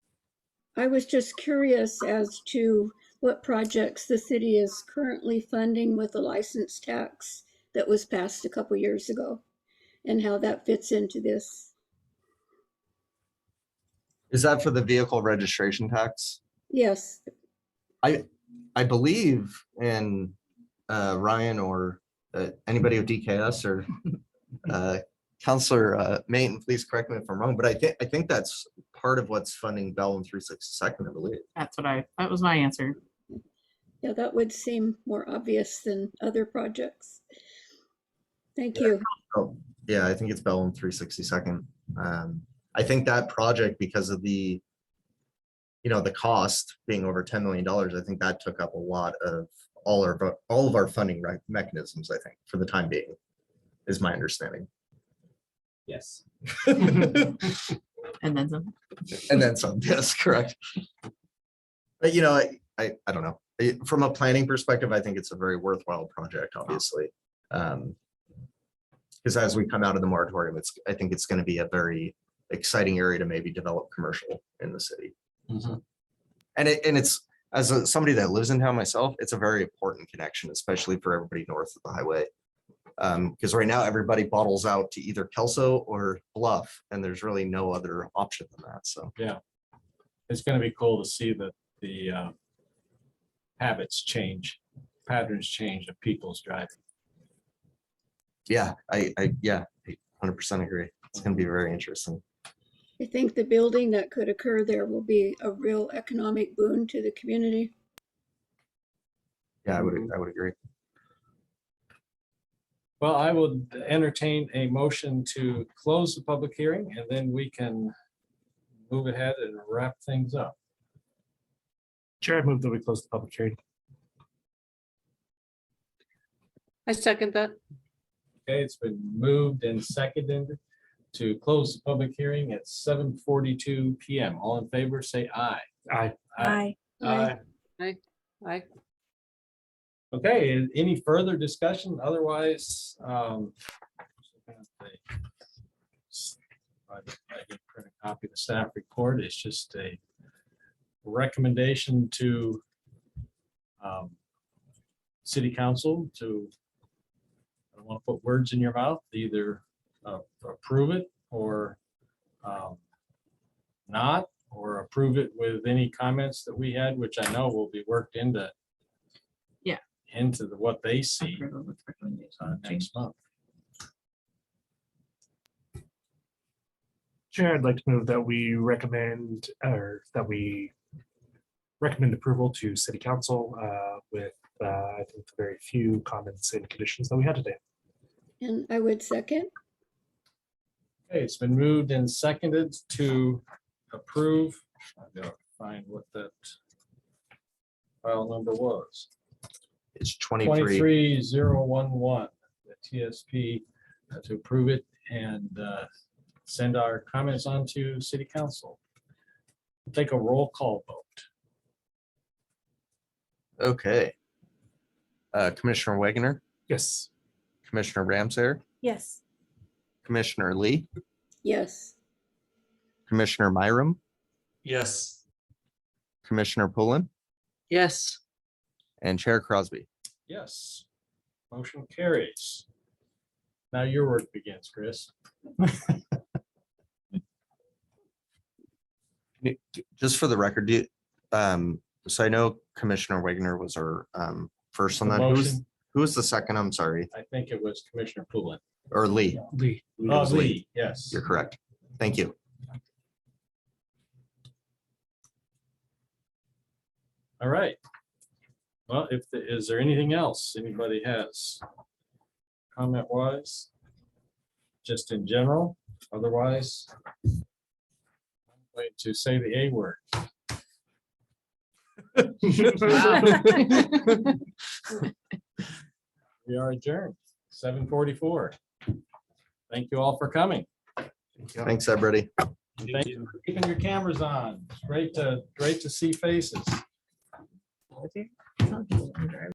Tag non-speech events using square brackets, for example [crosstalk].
I was just curious as to what projects the city is currently funding with the license tax that was passed a couple years ago and how that fits into this. Is that for the vehicle registration tax? Yes, I believe in uh, Ryan or uh, anybody with DKS or uh, Counselor uh, Mayton, please correct me if I'm wrong, but I think, I think that's part of what's funding Bell and 362nd, I believe. That's what I, that was my answer. yeah, that would seem more obvious than other projects. Thank you. Oh, yeah, I think it's Bell and 362nd. Um, I think that project, because of the, you know, the cost being over $10 million, I think that took up a lot of all our, vo- all of our funding rec- mechanisms, I think, for the time being, is my understanding. Yes. And And then some, then some, [laughs] yes, correct. But you know, I- I, I don't know. I- From a planning perspective, I think it's a very worthwhile project, obviously. Because as we come out of the moratorium, it's, I think it's going to be a very exciting area to maybe develop commercial in the city. And it, and it's, as a- somebody that lives in town myself, it's a very important connection, especially for everybody north of the highway. Because right now, everybody bottles out to either Kelso or Bluff, and there's really no other option than that, so. It's gonna be cool to see that the uh, habits change, patterns change of people's driving. Yeah, I, I, yeah, hundred percent agree. It's gonna be very interesting. I think the building that could occur there will be a real economic boon to the community. Yeah, I would, Mm-hmm. I would agree. Well, I would entertain a motion to close the public hearing and then we can move ahead and wrap things up. Chair, I move that we close the public hearing. I second that. Okay, it's been moved and seconded to close the public hearing at seven forty-two PM. All in favor, say aye. Aye. Aye. Aye. I, Okay, and any further discussion? Otherwise, um. I did print a Copy of the staff report. It's just a recommendation to um, city council to I don't want to put words in your mouth, either uh, approve it or um, not, or approve it with any comments that we had, which I know will be worked into Yeah. into the, what they see approval with uh, recommendation. next month. Chair, I'd like to move that we recommend, or that we recommend approval to city council uh, with, uh, I think, the very few comments and conditions that we had today. And I would second. Okay, it's been moved and seconded to approve. I gotta Find what that file number was. It's twenty-three. Twenty-three zero one one, the TSP, uh, to approve it and uh, send our comments on to city council. Take a roll call vote. Okay. Uh, Commissioner Wagoner, Yes. Commissioner Ramsayer, Yes. Commissioner Lee, Yes. Commissioner Myram, Yes. Commissioner Pullen, yes, and Chair Crosby. Yes, motion carries. Now your work begins, Chris. Just for the record, do, um, so I know Commissioner Wagoner was our, um, first on The that. Who was, motion, who was the second? I'm sorry, I think it was Commissioner Poulin. or Lee. Lee. Oh, was Lee, yes. You're correct. Thank you. All right. Well, if, the- is there anything else anybody has? Comment wise? Just in general, otherwise? Wait to say the A word. We are adjourned, seven forty-four. Thank you all for coming. Thanks, everybody. And Thank you for keeping your cameras on. It's Great to, great to see faces. Wow.